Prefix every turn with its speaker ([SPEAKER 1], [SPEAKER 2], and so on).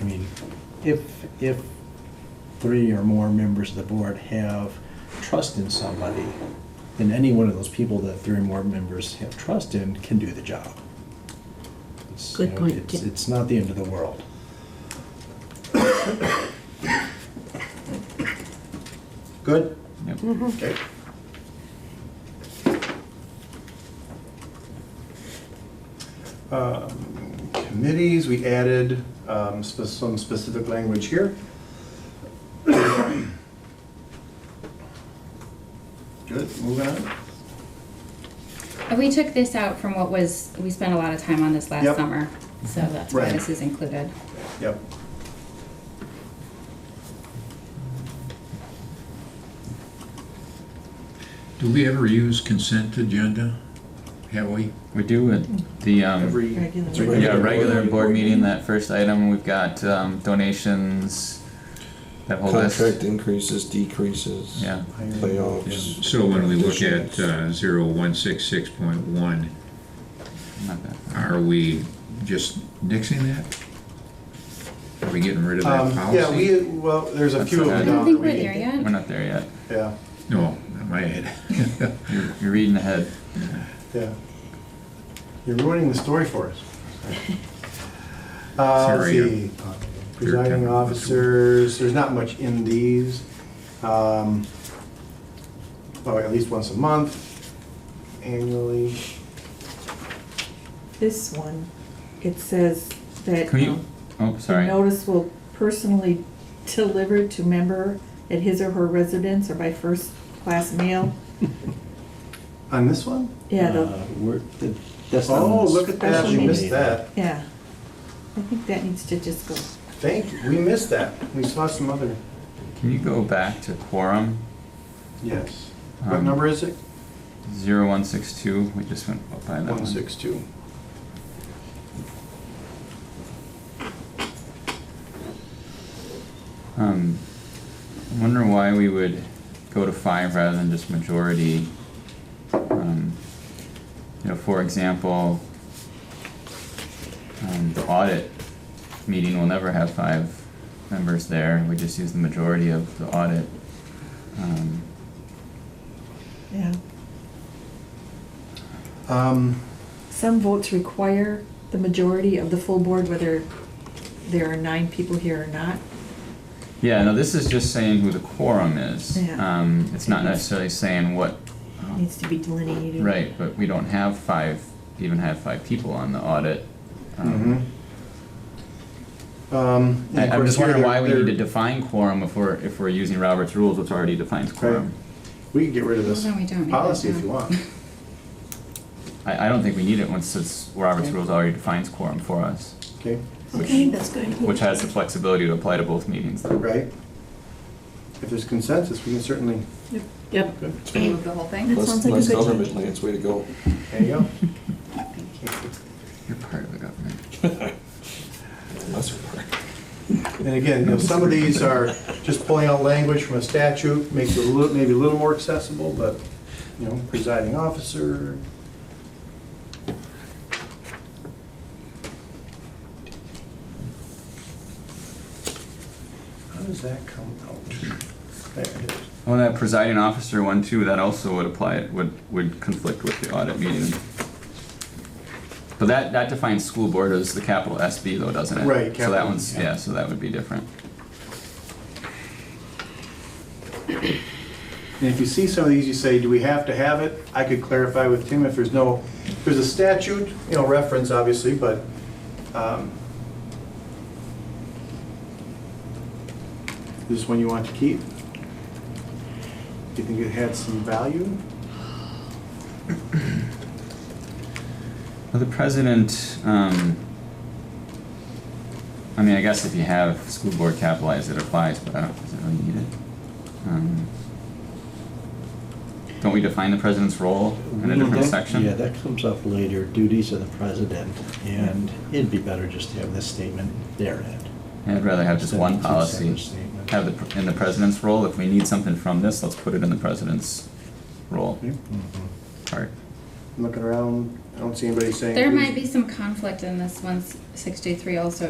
[SPEAKER 1] I mean, if, if three or more members of the board have trust in somebody, then any one of those people that three or more members have trust in can do the job. It's, you
[SPEAKER 2] Good
[SPEAKER 1] know,
[SPEAKER 2] point,
[SPEAKER 1] it's-
[SPEAKER 2] yeah.
[SPEAKER 1] It's not the end of the world.
[SPEAKER 3] Good?
[SPEAKER 4] Yep.
[SPEAKER 2] Mm-hmm.
[SPEAKER 3] Okay. Um, Committees, we added um, spe- some specific language here. Good, moving on.
[SPEAKER 5] And we took this out from what was, we spent a lot of time on this
[SPEAKER 3] Yep. Mhm.
[SPEAKER 5] last summer, so that's why
[SPEAKER 3] Right.
[SPEAKER 5] this is included.
[SPEAKER 3] Yep.
[SPEAKER 6] Do we ever use consent agenda? Have we?
[SPEAKER 4] We do it, the, um,
[SPEAKER 3] Every.
[SPEAKER 2] Regular.
[SPEAKER 3] every
[SPEAKER 4] yeah, regular
[SPEAKER 3] board
[SPEAKER 4] board meeting, that first item, we've got, um, donations, that whole
[SPEAKER 7] Contract
[SPEAKER 4] list.
[SPEAKER 7] increases, decreases.
[SPEAKER 4] Yeah,
[SPEAKER 7] Layoffs.
[SPEAKER 6] So when we look at uh, 0166.1,
[SPEAKER 4] not bad.
[SPEAKER 6] are we just nixing that? Are we getting rid of that
[SPEAKER 3] Um,
[SPEAKER 6] policy?
[SPEAKER 3] Yeah, we, well, there's a
[SPEAKER 4] That's
[SPEAKER 3] few of
[SPEAKER 4] okay.
[SPEAKER 3] them
[SPEAKER 5] I
[SPEAKER 4] I
[SPEAKER 3] down.
[SPEAKER 5] don't think
[SPEAKER 3] that
[SPEAKER 5] we're
[SPEAKER 3] uh, we-
[SPEAKER 5] there
[SPEAKER 4] We're
[SPEAKER 5] yet.
[SPEAKER 4] not there yet.
[SPEAKER 3] Yeah,
[SPEAKER 6] No, in my head.
[SPEAKER 4] You're, you're reading ahead.
[SPEAKER 3] yeah. You're ruining the story for us. Uh, let's
[SPEAKER 6] Sorry, I'm-
[SPEAKER 3] see. Presiding
[SPEAKER 6] tempered.
[SPEAKER 3] officers, there's not much in these. Um, Oh, at least once a month, annually.
[SPEAKER 8] This one, it says that
[SPEAKER 4] Can you,
[SPEAKER 8] um,
[SPEAKER 4] oh,
[SPEAKER 8] the
[SPEAKER 4] sorry.
[SPEAKER 8] notice will personally delivered to member at his or her residence or by first-class mail.
[SPEAKER 3] On this one?
[SPEAKER 8] Yeah,
[SPEAKER 1] Uh,
[SPEAKER 8] the,
[SPEAKER 1] we're- th- that's not on
[SPEAKER 3] Oh,
[SPEAKER 1] this.
[SPEAKER 3] look at that, we
[SPEAKER 8] Special
[SPEAKER 3] missed
[SPEAKER 1] meeting.
[SPEAKER 3] that.
[SPEAKER 8] yeah. I think that needs to just go.
[SPEAKER 3] Thank you, we missed that. We saw some other,
[SPEAKER 4] Can you go back to quorum
[SPEAKER 3] yes. What
[SPEAKER 4] Um,
[SPEAKER 3] number is it?
[SPEAKER 4] zero one six two? We just went by that one.
[SPEAKER 3] 162.
[SPEAKER 4] Um, I wonder why we would go to five rather than just majority. Um, you know, for example, um, the audit meeting will never have five members there. We just use the majority of the audit. Um,
[SPEAKER 8] Yeah.
[SPEAKER 3] Um,
[SPEAKER 8] Some votes require the majority of the full board, whether there are nine people here or not.
[SPEAKER 4] yeah, no, this is just saying who the quorum is.
[SPEAKER 8] Yeah.
[SPEAKER 4] Um, it's not necessarily saying what. um,
[SPEAKER 8] Needs to be delineated.
[SPEAKER 4] Oh. Right, but we don't have five, even have five people on the audit. Um,
[SPEAKER 3] mhm. Um, and
[SPEAKER 4] I-
[SPEAKER 3] of
[SPEAKER 4] I'm
[SPEAKER 3] course
[SPEAKER 4] just
[SPEAKER 3] here
[SPEAKER 4] wondering
[SPEAKER 3] they're-
[SPEAKER 4] why we need to
[SPEAKER 3] they're-
[SPEAKER 4] define quorum if we're, if we're using Robert's rules, which already defines quorum.
[SPEAKER 3] Um, We can get rid of this
[SPEAKER 5] No, we don't need
[SPEAKER 3] policy
[SPEAKER 5] that,
[SPEAKER 3] if you
[SPEAKER 5] no.
[SPEAKER 3] want.
[SPEAKER 4] I, I don't think we need it once it's, Robert's
[SPEAKER 3] Okay.
[SPEAKER 4] rules already defines quorum for us,
[SPEAKER 3] Okay,
[SPEAKER 2] Okay, that's good.
[SPEAKER 4] which has the flexibility to apply to both meetings though.
[SPEAKER 3] right? If there's consensus, we can certainly,
[SPEAKER 2] Yep.
[SPEAKER 5] Remove the whole thing?
[SPEAKER 2] That sounds
[SPEAKER 7] Less,
[SPEAKER 2] like a
[SPEAKER 7] less
[SPEAKER 2] good
[SPEAKER 7] government
[SPEAKER 2] idea.
[SPEAKER 7] lands, way to go.
[SPEAKER 3] there you go.
[SPEAKER 4] You're part of the government.
[SPEAKER 7] It's a lesser part.
[SPEAKER 3] And again, you know, some of these are just pulling out language from a statute, makes it a little, maybe a little more accessible, but, you know, presiding officer. How does that come out? There it is.
[SPEAKER 4] Well, Oh, that presiding officer one too, that also would apply, would, would conflict with the audit meeting. But that, that defines school board as the capital SB though, doesn't it?
[SPEAKER 3] Right,
[SPEAKER 4] So that
[SPEAKER 3] capital,
[SPEAKER 4] one's,
[SPEAKER 3] yeah.
[SPEAKER 4] yeah, so that would be different.
[SPEAKER 3] And if you see some of these, you say, do we have to have it? I could clarify with Tim if there's no, if there's a statute, you know, reference obviously, but, um, is this one you want to keep? Do you think it had some value?
[SPEAKER 4] Well, the president, um, I mean, I guess if you have school board capitalized, it applies, but I don't, does it really need it? Um, Don't we define the president's role in a different
[SPEAKER 1] That-
[SPEAKER 4] section?
[SPEAKER 1] Mm-hmm. Yeah, that comes up later, duties of the president, and it'd be better just to have this statement therein.
[SPEAKER 4] I'd rather have just one
[SPEAKER 1] Instead of two separate
[SPEAKER 4] policy,
[SPEAKER 1] statements.
[SPEAKER 4] have the, pr- in the president's role, if we need something from this, let's put it in the president's role
[SPEAKER 3] I'm
[SPEAKER 1] Mhm.
[SPEAKER 4] part.
[SPEAKER 3] looking around, I don't see anybody saying.
[SPEAKER 5] There
[SPEAKER 3] please.
[SPEAKER 5] might be some conflict in this one sixty-three also